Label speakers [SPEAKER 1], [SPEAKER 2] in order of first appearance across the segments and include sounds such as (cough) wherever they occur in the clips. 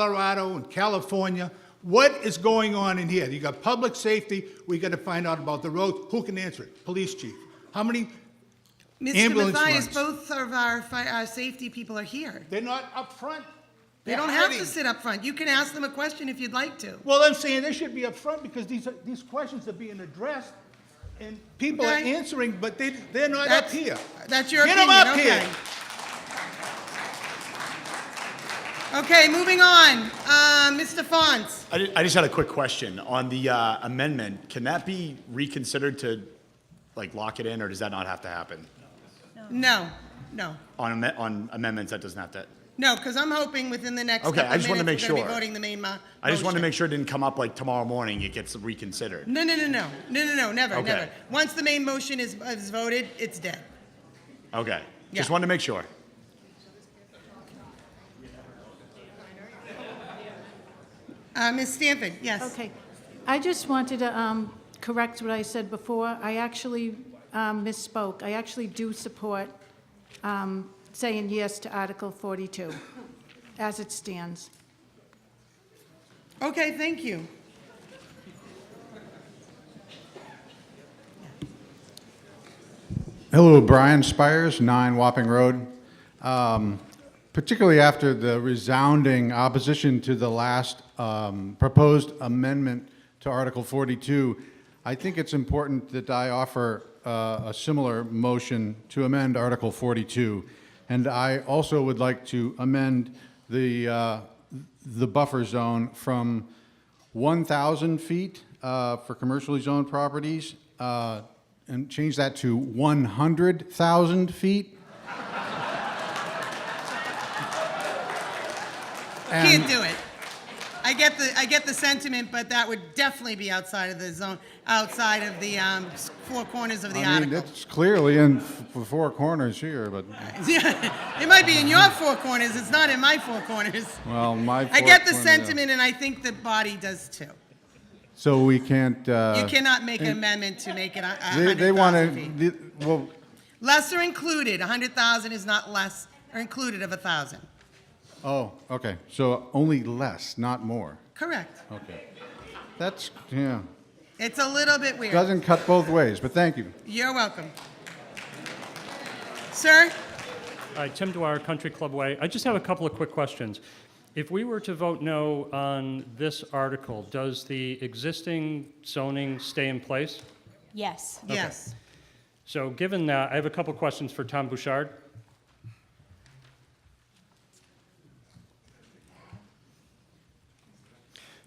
[SPEAKER 1] Colorado and California. What is going on in here? You got public safety, we gotta find out about the roads, who can answer it? Police chief. How many,
[SPEAKER 2] Mr.
[SPEAKER 1] Ambulance runs.
[SPEAKER 2] Mathias, both of our, fi- our safety people are here.
[SPEAKER 1] they're not up front.
[SPEAKER 2] They
[SPEAKER 1] They're
[SPEAKER 2] don't have to
[SPEAKER 1] hiding.
[SPEAKER 2] sit up front. You can ask them a question if you'd like to.
[SPEAKER 1] Well, I'm saying they should be up front because these, are- these questions are being addressed and people are
[SPEAKER 2] Okay.
[SPEAKER 1] answering, but they, they're not up
[SPEAKER 2] That's-
[SPEAKER 1] here.
[SPEAKER 2] That's your
[SPEAKER 1] Get 'em
[SPEAKER 2] opinion,
[SPEAKER 1] up
[SPEAKER 2] okay.
[SPEAKER 1] here.
[SPEAKER 2] Okay, moving on. Uh, Mr. Fons,
[SPEAKER 3] I ju- I just had a quick question on the uh, amendment. Can that be reconsidered to, like, lock it in, or does that not have to happen?
[SPEAKER 2] no, no,
[SPEAKER 3] On amme- on amendments, that doesn't have to,
[SPEAKER 2] no, because I'm hoping within the next
[SPEAKER 3] Okay,
[SPEAKER 2] couple
[SPEAKER 3] I
[SPEAKER 2] of
[SPEAKER 3] just wanted to
[SPEAKER 2] minutes, we're
[SPEAKER 3] make
[SPEAKER 2] going to be
[SPEAKER 3] sure.
[SPEAKER 2] voting the main mo-
[SPEAKER 3] I just wanted to
[SPEAKER 2] motion.
[SPEAKER 3] make sure it didn't come up like tomorrow morning, it gets reconsidered.
[SPEAKER 2] No, no, no, no, no, no, no, never,
[SPEAKER 3] Okay.
[SPEAKER 2] never. Once the main motion is, is voted, it's dead.
[SPEAKER 3] Okay, just
[SPEAKER 2] Yeah.
[SPEAKER 3] wanted to make sure.
[SPEAKER 2] Uh, Ms. Stanford, yes.
[SPEAKER 4] Okay. I just wanted to um, correct what I said before. I actually um, misspoke. I actually do support um, saying yes to Article 42 as it stands.
[SPEAKER 2] Okay, thank you.
[SPEAKER 5] Hello, Brian Spires, 9 Wapping Road. Um, Particularly after the resounding opposition to the last um, proposed amendment to Article 42, I think it's important that I offer uh, a similar motion to amend Article 42. And I also would like to amend the, uh, the buffer zone from 1,000 feet uh, for commercially zoned properties, uh, and change that to 100,000 feet.
[SPEAKER 2] Can't
[SPEAKER 5] Um,
[SPEAKER 2] do it. I get the, I get the sentiment, but that would definitely be outside of the zone, outside of the um, s- four corners of the
[SPEAKER 5] I mean,
[SPEAKER 2] article.
[SPEAKER 5] it's clearly in f- four corners here, but,
[SPEAKER 2] (laughs) It might be in your four corners, it's not in my four corners.
[SPEAKER 5] well, my
[SPEAKER 2] I get the
[SPEAKER 5] four corners-
[SPEAKER 2] sentiment, and I think the body does too.
[SPEAKER 5] So we can't, uh...
[SPEAKER 2] You cannot make an amendment to make it a
[SPEAKER 5] They, they
[SPEAKER 2] hundred
[SPEAKER 5] wanna,
[SPEAKER 2] thousand feet.
[SPEAKER 5] the- well,
[SPEAKER 2] Lesser included, a hundred thousand is not less, or included of a thousand.
[SPEAKER 5] oh, okay, so only less, not more,
[SPEAKER 2] Correct.
[SPEAKER 5] okay. That's, yeah,
[SPEAKER 2] It's a little bit weird.
[SPEAKER 5] doesn't cut both ways, but thank you.
[SPEAKER 2] You're welcome. Sir?
[SPEAKER 6] All right, Tim Dwyer, Country Club Way. I just have a couple of quick questions. If we were to vote no on this article, does the existing zoning stay in place?
[SPEAKER 7] Yes.
[SPEAKER 2] Yes.
[SPEAKER 6] So given that, I have a couple of questions for Tom Bouchard.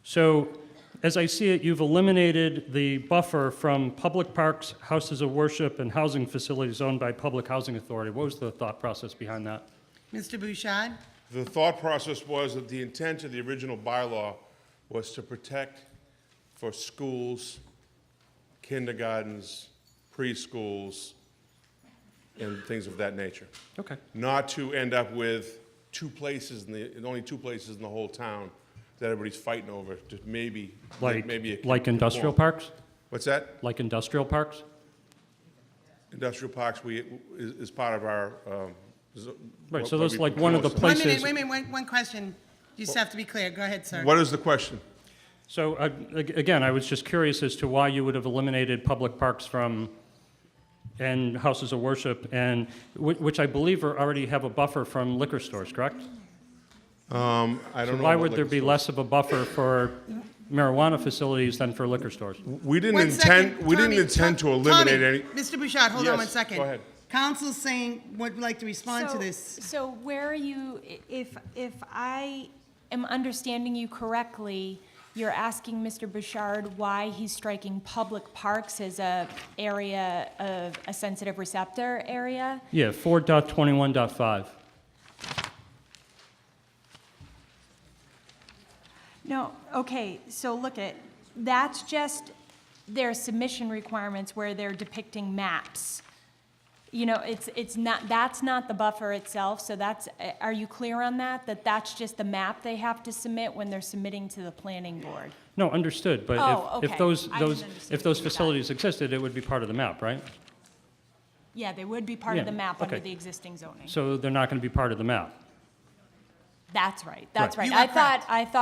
[SPEAKER 6] So as I see it, you've eliminated the buffer from public parks, houses of worship, and housing facilities owned by public housing authority. What was the thought process behind that?
[SPEAKER 2] Mr. Bouchard?
[SPEAKER 8] The thought process was that the intent of the original bylaw was to protect for schools, kindergartens, preschools, and things of that nature.
[SPEAKER 6] Okay.
[SPEAKER 8] Not to end up with two places in the, only two places in the whole town that everybody's fighting over, just maybe,
[SPEAKER 6] Like,
[SPEAKER 8] maybe. it can
[SPEAKER 6] like industrial
[SPEAKER 8] conform.
[SPEAKER 6] parks?
[SPEAKER 8] What's that?
[SPEAKER 6] Like industrial parks?
[SPEAKER 8] Industrial parks, we, is, is part of our, um. zo-
[SPEAKER 6] Right, so
[SPEAKER 8] what- what
[SPEAKER 6] that's
[SPEAKER 8] we
[SPEAKER 6] like one of the
[SPEAKER 8] propose.
[SPEAKER 2] One
[SPEAKER 6] Places-
[SPEAKER 2] minute, wait a minute, one, one question. You just have to be clear. Go ahead, sir.
[SPEAKER 8] What is the question?
[SPEAKER 6] So uh, ag- again, I was just curious as to why you would have eliminated public parks from, and houses of worship, and, whi- which I believe are, already have a buffer from liquor stores, correct?
[SPEAKER 8] Um, I don't know.
[SPEAKER 6] Why
[SPEAKER 8] about
[SPEAKER 6] would there
[SPEAKER 8] liquor
[SPEAKER 6] be
[SPEAKER 8] stores.
[SPEAKER 6] less of a buffer for marijuana facilities than for liquor stores?
[SPEAKER 8] We didn't
[SPEAKER 2] One second,
[SPEAKER 8] intend, we didn't
[SPEAKER 2] Tommy,
[SPEAKER 8] intend to
[SPEAKER 2] Tom-
[SPEAKER 8] eliminate
[SPEAKER 2] Tommy,
[SPEAKER 8] any.
[SPEAKER 2] Mr. Bouchard, hold on
[SPEAKER 8] Yes,
[SPEAKER 2] one second.
[SPEAKER 8] go ahead.
[SPEAKER 2] Council's saying, would like to respond to
[SPEAKER 7] So-
[SPEAKER 2] this.
[SPEAKER 7] So where are you, i- if, if I am understanding you correctly, you're asking Mr. Bouchard why he's striking public parks as a area of, a sensitive receptor area?
[SPEAKER 6] Yeah, four dot twenty-one dot five.
[SPEAKER 7] No, okay, so look at, that's just their submission requirements where they're depicting maps. You know, it's, it's not, that's not the buffer itself, so that's, are you clear on that? That that's just the map they have to submit when they're submitting to the planning board?
[SPEAKER 6] No, understood, but
[SPEAKER 7] Oh,
[SPEAKER 6] if, if
[SPEAKER 7] okay.
[SPEAKER 6] those,
[SPEAKER 7] I
[SPEAKER 6] those,
[SPEAKER 7] misunderstood
[SPEAKER 6] if those
[SPEAKER 7] you that.
[SPEAKER 6] facilities existed, it would be part of the map, right?
[SPEAKER 7] Yeah, they would be part of
[SPEAKER 6] Yeah,
[SPEAKER 7] the map under
[SPEAKER 6] okay.
[SPEAKER 7] the existing zoning.
[SPEAKER 6] So they're not going to be part of the map.
[SPEAKER 7] That's right, that's
[SPEAKER 6] Right.
[SPEAKER 7] right.
[SPEAKER 2] You
[SPEAKER 7] I
[SPEAKER 2] were
[SPEAKER 7] thought,
[SPEAKER 2] correct.
[SPEAKER 7] I thought